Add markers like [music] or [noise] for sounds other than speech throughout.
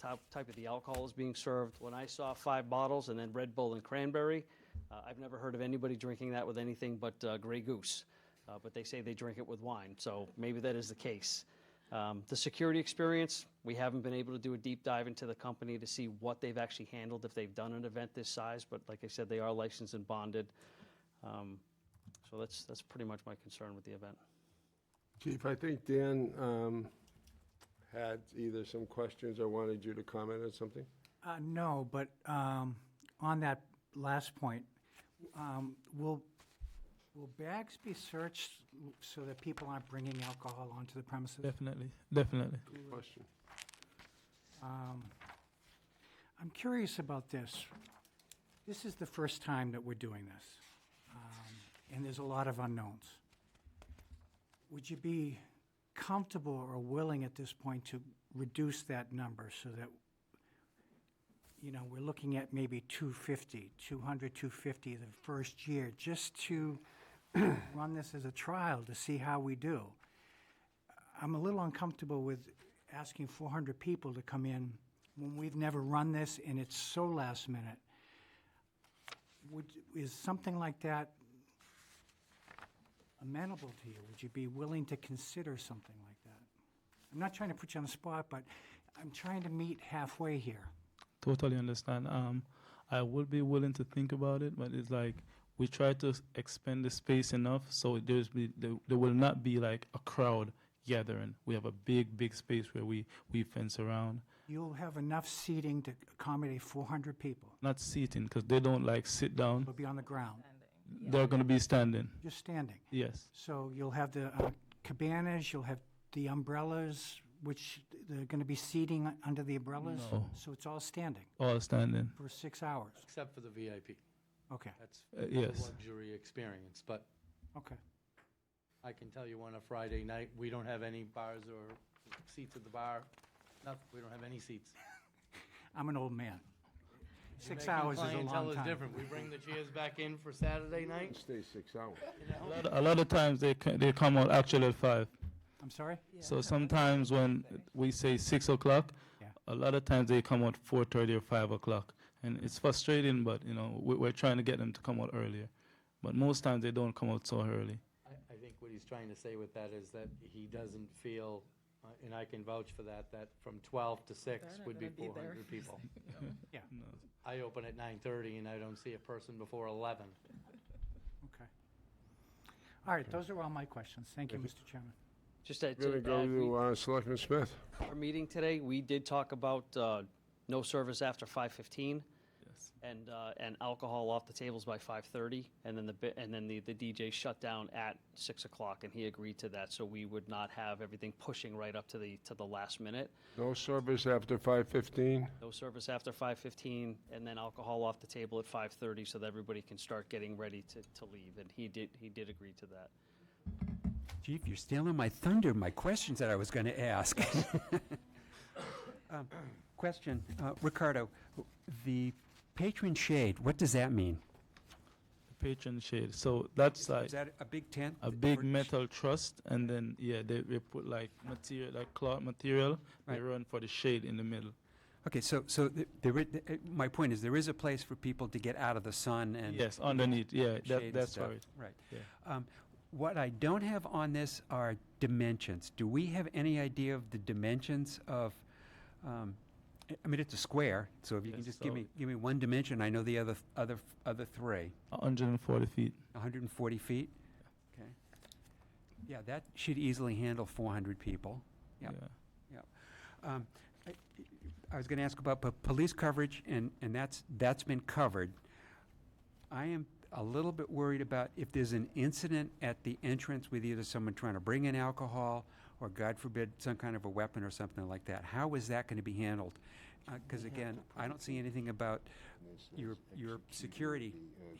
type, type of the alcohol is being served. When I saw five bottles and then Red Bull and cranberry, uh, I've never heard of anybody drinking that with anything but uh, Grey Goose. Uh, but they say they drink it with wine, so maybe that is the case. Um, The security experience, we haven't been able to do a deep dive into the company to see what they've actually handled, if they've done an event this size, but like I said, they are licensed and bonded. Um, So that's, that's pretty much my concern with the event. Chief, I think Dan um, had either some questions or wanted you to comment on something. Uh, No, but um, on that last point, um, will, will bags be searched so that people aren't bringing alcohol onto the premises? Definitely, definitely. Question. Um, I'm curious about this. This is the first time that we're doing this, um, and there's a lot of unknowns. Would you be comfortable or willing at this point to reduce that number so that, you know, we're looking at maybe 250, 200, 250 the first year, just to [clears throat] run this as a trial to see how we do? I'm a little uncomfortable with asking 400 people to come in when we've never run this and it's so last minute. Would, is something like that amenable to you? Would you be willing to consider something like that? I'm not trying to put you on the spot, but I'm trying to meet halfway here. Totally understand. Um, I would be willing to think about it, but it's like we try to s- expand the space enough so there's be, there, there will not be like a crowd gathering. We have a big, big space where we we fence around, You'll have enough seating to accommodate 400 people. not seating because they don't like sit down. It'll be on the ground, They're gonna be standing. just standing. Yes, So you'll have the uh, cabanas, you'll have the umbrellas, which they're going to be seating under the umbrellas? No. So it's all standing all standing. for six hours? Except for the VIP. Okay, That's Uh, a yes. luxury experience, but okay. I can tell you on a Friday night, we don't have any bars or seats at the bar. No, we don't have any seats. I'm an old man. Your Six Mexican hours is a clientele long is time. different. We bring the chairs back in for Saturday night. Stay six hours. A lot, a lot of times they ca- they come out actually at five. I'm sorry? So sometimes when we say six o'clock, Yeah. a lot of times they come out four thirty or five o'clock, and it's frustrating. But you know, we, we're trying to get them to come out earlier, but most times they don't come out so early. I, I think what he's trying to say with that is that he doesn't feel, uh, and I can vouch for that, that from 12 to 6 They're not would be gonna be there. 400 people. [laughs] Yeah. No. I open at 9:30 and I don't see a person before 11. Okay. All right, those are all my questions. Thank you, Mr. Chairman. Just to We're going to go add, we- to uh, Selectman Smith. our meeting today, we did talk about uh, no service after 5:15 Yes. and, uh, and alcohol off the tables by 5:30, and then the, bi- and then the the DJ shut down at 6 o'clock, and he agreed to that, so we would not have everything pushing right up to the, to the last minute. No service after 5:15. No service after 5:15, and then alcohol off the table at 5:30, so that everybody can start getting ready to, to leave, and he did, he did agree to that. Chief, you're stealing my thunder, my questions that I was going to ask. Um, Question, uh, Ricardo, the patron shade, what does that mean? Patron shade. So that's like Is that a big tent? a big Or- metal truss, and then yeah, they, they put like material, like cloth material. They Right. run for the shade in the middle. Okay, so, so th- there, i- th- uh, my point is, there is a place for people to get out of the sun and. yes, underneath. Yeah, shade that, and that's stuff. right. Right. Yeah. Um, What I don't have on this are dimensions. Do we have any idea of the dimensions of, um, I I mean, it's a square, so if you can Yes, just give so- me, give me one dimension, I know the other, th- other, f- other three. 140 feet. 140 feet? Okay. Yeah, that should easily handle 400 people. Yep. Yeah. Um, I I was going to ask about po- police coverage, and, and that's, that's been covered. I am a little bit worried about if there's an incident at the entrance with either someone trying to bring in alcohol, or God forbid, some kind of a weapon or something like that. How is that going to be handled? Because again, I don't see anything about your, your security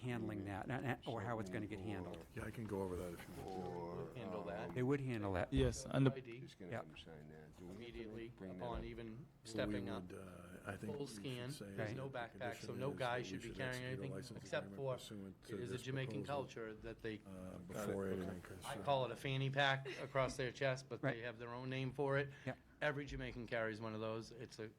handling that, and- and- or how it's going to get handled. Yeah, I can go over that if you want. Handle that They would handle that. Yes, and the ID gonna Yep. sign that. Do we have to immediately bring that upon up? even So we stepping up. would, uh, I think full we should scan, say there's that no the backpack, so condition no is guy that should we be carrying execute a anything license except agreement for, pursuant to it is a this Jamaican proposal, culture that they, uh, Before anything. is, I uh, call it a fanny pack across their chest, but Right. they have their own name for it. Yep. Every Jamaican carries one of those. It's a